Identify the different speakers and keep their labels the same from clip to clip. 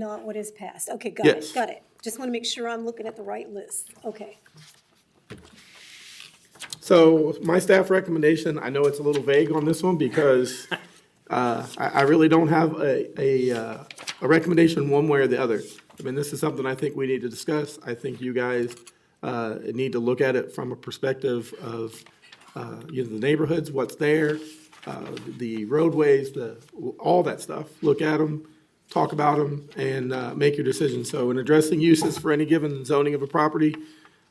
Speaker 1: Not what is passed. Okay, got
Speaker 2: Yes.
Speaker 1: it, got it. Just want to make sure I'm looking at the right list. Okay.
Speaker 2: So my staff recommendation, I know it's a little vague on this one because uh, I, I really don't have a, a, uh, a recommendation one way or the other. I mean, this is something I think we need to discuss. I think you guys uh, need to look at it from a perspective of, uh, you know, the neighborhoods, what's there, uh, the roadways, the, all that stuff. Look at them, talk about them, and uh, make your decision. So in addressing uses for any given zoning of a property,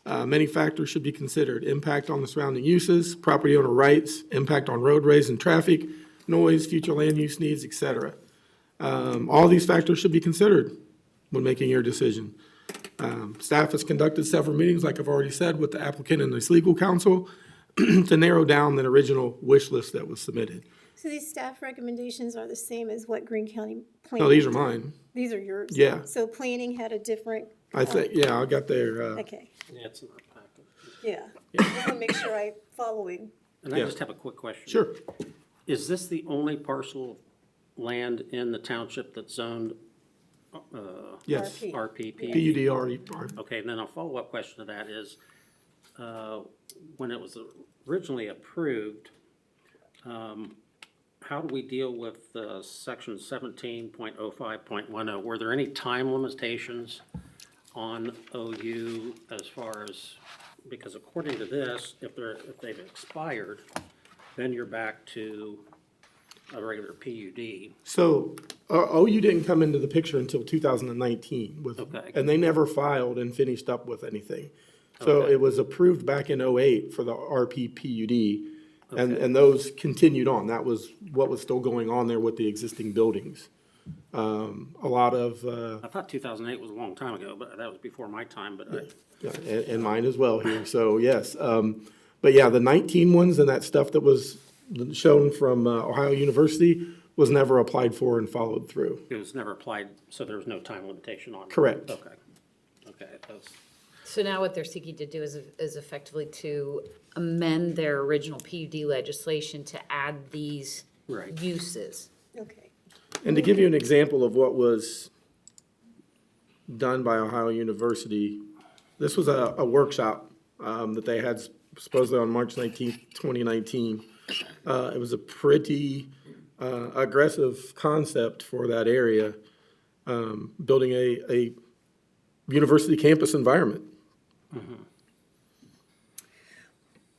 Speaker 2: uh, many factors should be considered. Impact on the surrounding uses, property owner rights, impact on roadways and traffic, noise, future land use needs, et cetera. Um, all these factors should be considered when making your decision. Um, staff has conducted several meetings, like I've already said, with the applicant and his legal counsel to narrow down the original wish list that was submitted.
Speaker 1: So these staff recommendations are the same as what Greene County
Speaker 2: No,
Speaker 1: planning?
Speaker 2: these are mine.
Speaker 1: These are yours?
Speaker 2: Yeah.
Speaker 1: So planning had a different,
Speaker 2: I think, yeah, I got their, uh,
Speaker 1: okay,
Speaker 3: Yeah, it's in our packet.
Speaker 1: yeah. Just want to make sure I'm following.
Speaker 3: And I
Speaker 2: Yeah.
Speaker 3: just have a quick question.
Speaker 2: sure.
Speaker 3: Is this the only parcel of land in the township that's zoned uh,
Speaker 2: Yes.
Speaker 1: RP.
Speaker 3: RPP?
Speaker 2: PUDR,
Speaker 3: Okay, and then a follow-up question to that is, uh, when it was originally approved, um, how do we deal with uh, section 17.05.10? Were there any time limitations on OU as far as, because according to this, if they're, if they've expired, then you're back to a regular PUD.
Speaker 2: So, O- OU didn't come into the picture until 2019 with,
Speaker 3: Okay.
Speaker 2: and they never filed and finished up with anything. So
Speaker 3: Okay.
Speaker 2: it was approved back in '08 for the RPPUD, and, and those continued on. That was what was still going on there with the existing buildings. Um, A lot of, uh,
Speaker 3: I thought 2008 was a long time ago, but that was before my time, but I,
Speaker 2: yeah, and and mine as well here, so yes. Um, But yeah, the 19 ones and that stuff that was shown from uh, Ohio University was never applied for and followed through.
Speaker 3: It was never applied, so there was no time limitation on it?
Speaker 2: Correct.
Speaker 3: Okay, okay, that's,
Speaker 4: So now what they're seeking to do is, is effectively to amend their original PUD legislation to add these
Speaker 3: Right.
Speaker 4: uses.
Speaker 1: Okay.
Speaker 2: And to give you an example of what was done by Ohio University, this was a, a workshop um, that they had supposedly on March nineteenth, twenty nineteen. Uh, it was a pretty uh, aggressive concept for that area, um, building a, a university campus environment.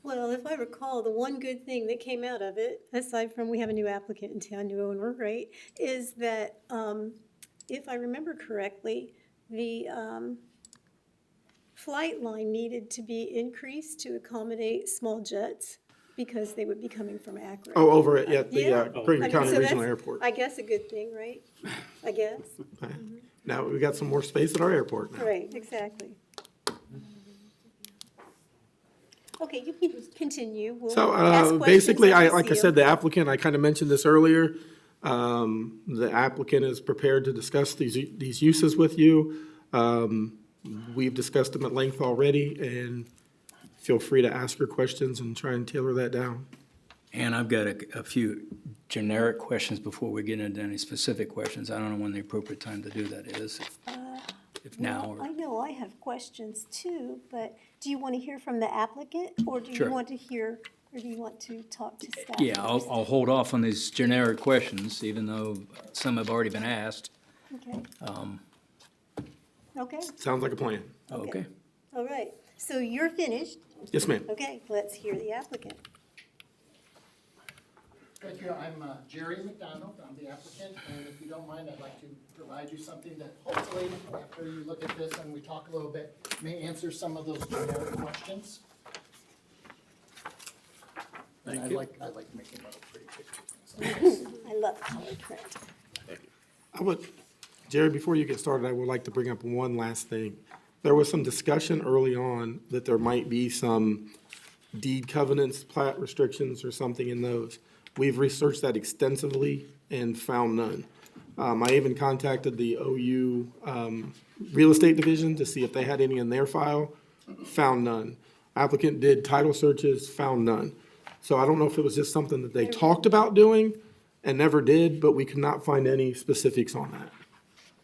Speaker 1: Well, if I recall, the one good thing that came out of it, aside from we have a new applicant in town, new owner, right, is that, um, if I remember correctly, the, um, flight line needed to be increased to accommodate small jets because they would be coming from Akron.
Speaker 2: Oh, over at, at the
Speaker 1: Yeah.
Speaker 2: uh, Greene
Speaker 1: I mean,
Speaker 2: County
Speaker 1: so
Speaker 2: Regional
Speaker 1: that's,
Speaker 2: Airport.
Speaker 1: I guess a good thing, right? I guess,
Speaker 2: Now, we got some more space at our airport now.
Speaker 1: right, exactly. Okay, you can continue. We'll
Speaker 2: So,
Speaker 1: ask
Speaker 2: uh,
Speaker 1: questions
Speaker 2: basically,
Speaker 1: as we
Speaker 2: I,
Speaker 1: see
Speaker 2: like I
Speaker 1: 'em.
Speaker 2: said, the applicant, I kind of mentioned this earlier, um, the applicant is prepared to discuss these, u- these uses with you. Um, we've discussed them at length already, and feel free to ask your questions and try and tailor that down.
Speaker 5: And I've got a, a few generic questions before we get into any specific questions. I don't know when the appropriate time to do that is, if- if now
Speaker 1: Uh, I
Speaker 5: or,
Speaker 1: know I have questions too, but do you want to hear from the applicant? Or do you
Speaker 5: Sure.
Speaker 1: want to hear, or do you want to talk to staff?
Speaker 5: yeah, I'll,
Speaker 1: first?
Speaker 5: I'll hold off on these generic questions, even though some have already been asked. Um,
Speaker 1: Okay. Okay,
Speaker 2: Sounds like a plan.
Speaker 5: Okay.
Speaker 1: all right. So you're finished.
Speaker 2: Yes, ma'am.
Speaker 1: Okay, let's hear the applicant.
Speaker 6: Thank you, I'm uh, Jerry McDonald, I'm the applicant, and if you don't mind, I'd like to provide you something that hopefully, after you look at this and we talk a little bit, may answer some of those generic questions. And I like, I like making little pretty pictures.
Speaker 1: I love color print.
Speaker 2: I would, Jerry, before you get started, I would like to bring up one last thing. There was some discussion early on that there might be some deed covenants, plat restrictions, or something in those. We've researched that extensively and found none. Um, I even contacted the OU, um, Real Estate Division to see if they had any in their file, found none. Applicant did title searches, found none. So I don't know if it was just something that they talked about doing and never did, but we could not find any specifics on that.